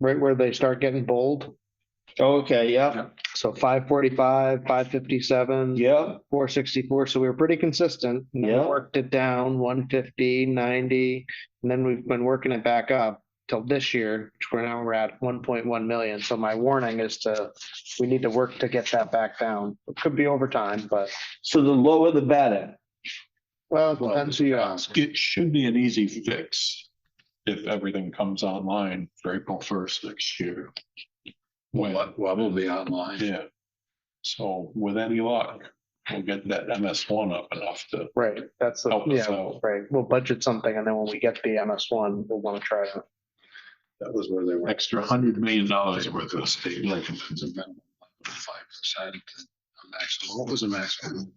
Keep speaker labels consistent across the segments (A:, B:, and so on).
A: right where they start getting bold.
B: Okay, yeah,
A: So five forty-five, five fifty-seven.
B: yeah,
A: four sixty-four, so we were pretty consistent. and then we
B: Yeah.
A: Worked it down, 150, 90, and then we've been working it back up till this year, which we're now we're at one point one million, so my warning is to, we need to work to get that back down. It could be over time, but,
B: so the lower the better.
A: well, it depends who you ask.
C: It should be an easy fix if everything comes online for April first next year. When,
D: What, what will be online?
C: yeah. So with any luck, we'll get that MS one up enough to
A: Right, that's, the
C: help us
A: yeah,
C: out.
A: right, we'll budget something, and then when we get the MS one, we'll wanna try it.
D: That was where they were.
C: Extra hundred million dollars worth of state.
D: Like, it's a minimum of Five percent, a maximum, what was the maximum?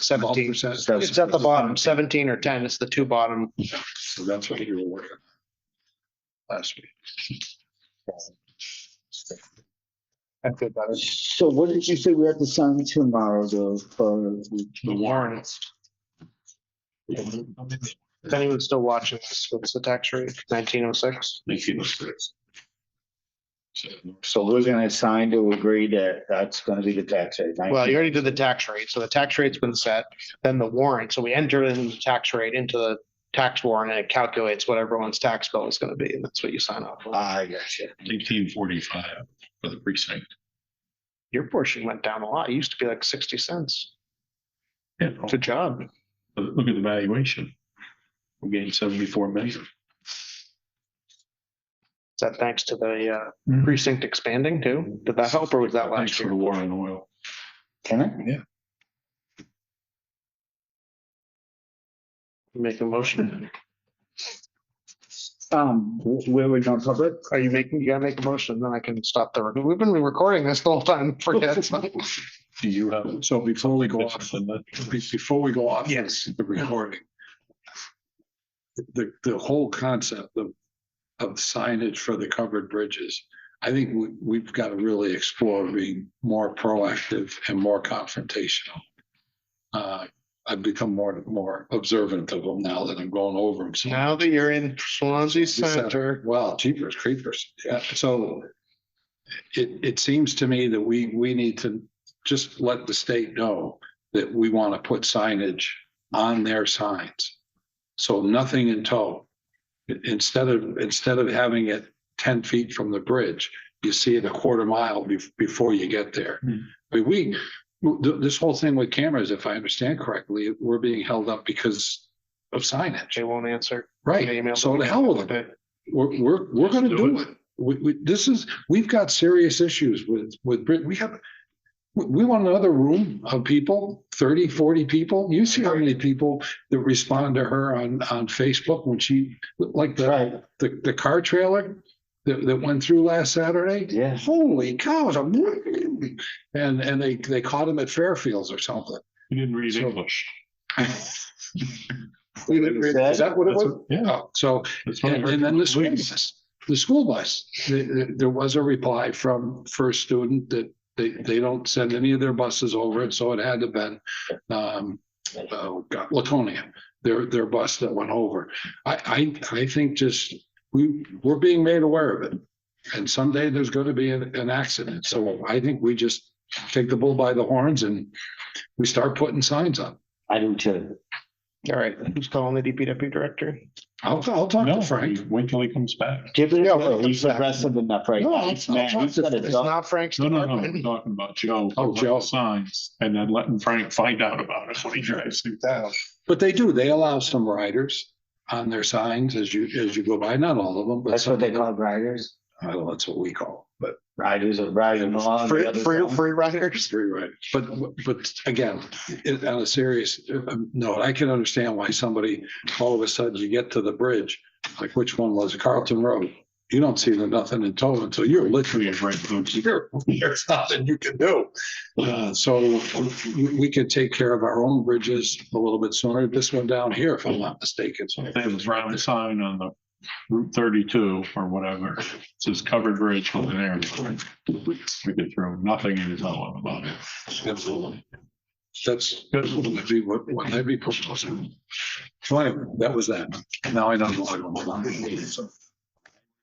A: Seventeen,
D: 12%?
A: it's at the bottom, seventeen or ten, it's the two bottom,
D: So that's what you were working on last week.
A: I feel better.
E: So what did you say we have to sign tomorrow though? for-
C: The warrants.
A: If anyone's still watching this, what's the tax rate? Nineteen oh six?
E: So we're gonna sign to agree that that's gonna be the tax rate. right?
A: Well, you already did the tax rate, so the tax rate's been set, then the warrant, so we enter in the tax rate into the tax warrant and it calculates what everyone's tax bill is gonna be, and that's what you sign off on.
E: I got you.
C: Eighteen forty-five for the precinct.
A: Your portion went down a lot. It used to be like sixty cents.
C: Yeah,
A: Good job.
C: look at the valuation. We gained seventy-four million.
A: Is that thanks to the uh,
C: Mhm.
A: precinct expanding too? Did that help or was that
C: Thanks
A: last
C: for the
A: year?
C: war on oil.
E: Can I?
A: Make a motion?
E: Um, wh- where we going public?
A: Are you making, you gotta make a motion, then I can stop the, rec- we've been recording this the whole time, forget.
C: Do you have?
D: So before we go off,
C: Listen, that-
D: be- before we go off.
A: Yes.
D: The recording. The, the whole concept of, of signage for the covered bridges. I think we, we've got to really explore being more proactive and more confrontational. Uh, I've become more, more observant of them now that I'm going over them. So
A: Now that you're in Swansea Center,
D: Well, jeepers creepers, yeah, so. It, it seems to me that we, we need to just let the state know that we want to put signage on their signs. So nothing in tow. I- Instead of, instead of having it ten feet from the bridge, you see it a quarter mile bef- before you get there.
C: Hmm.
D: I mean, we, th- this whole thing with cameras, if I understand correctly, we're being held up because of signage.
A: Jay won't answer.
D: Right,
A: Email.
D: so to hell with it. We're, we're, we're gonna do it. We, we, this is, we've got serious issues with, with Brit, we have. We, we want another room of people, 30, 40 people. You see how many people that respond to her on, on Facebook when she, like the,
E: Right,
D: the, the car trailer. That, that went through last Saturday.
E: yeah.
D: Holy cows, I'm, and, and they, they caught him at Fairfields or something.
C: You didn't read
D: So-
C: English.
D: Is that what it was? Yeah, so
C: That's what I
D: and
C: heard
D: and then
C: from
D: the school
C: police.
D: bus, the school bus, Th- th- there was a reply from first student that they, they don't send any of their buses over, and so it had to been, um, oh, God, Laconia, their, their bus that went over. I, I, I think just, we, we're being made aware of it. And someday there's gonna be an, an accident, so I think we just take the bull by the horns and we start putting signs up.
E: I do too.
A: All right, who's calling the DPW director?
D: I'll, I'll talk
C: No,
D: to Frank.
C: wait till he comes back.
E: Give it a
A: Yeah,
E: go.
A: but-
E: He's aggressive enough right
D: No,
E: now.
D: I'm- I'm
E: Man, he's got a
A: It's
E: dog.
A: not Frank's
C: No, no, no, I'm
A: department.
C: talking about Joe.
D: Oh, Joe.
C: Signs and then letting Frank find out about it when he drives through town.
D: But they do, they allow some riders on their signs as you, as you go by, not all of them, but
E: That's
D: some,
E: what they call riders.
D: I don't know, that's what we call, it, but
E: Riders are riding along. the
A: Free,
E: other
A: free,
E: side.
A: free riders.
D: free riders. But, but again, it- on a serious um, note, I can understand why somebody, all of a sudden you get to the bridge, like which one was it? Carlton Road? You don't see the nothing in tow until you're literally right. here. There's nothing you can do. Uh, so we, we could take care of our own bridges a little bit sooner. This one down here, if I'm not mistaken. so-
C: They have a round sign on the Route thirty-two or whatever. It says covered bridge with an arrow. We could throw nothing in his own about it.
D: Absolutely. That's, that's what I'd be, what, what I'd be proposing. So anyway, that was that. Now I know. what I'm about.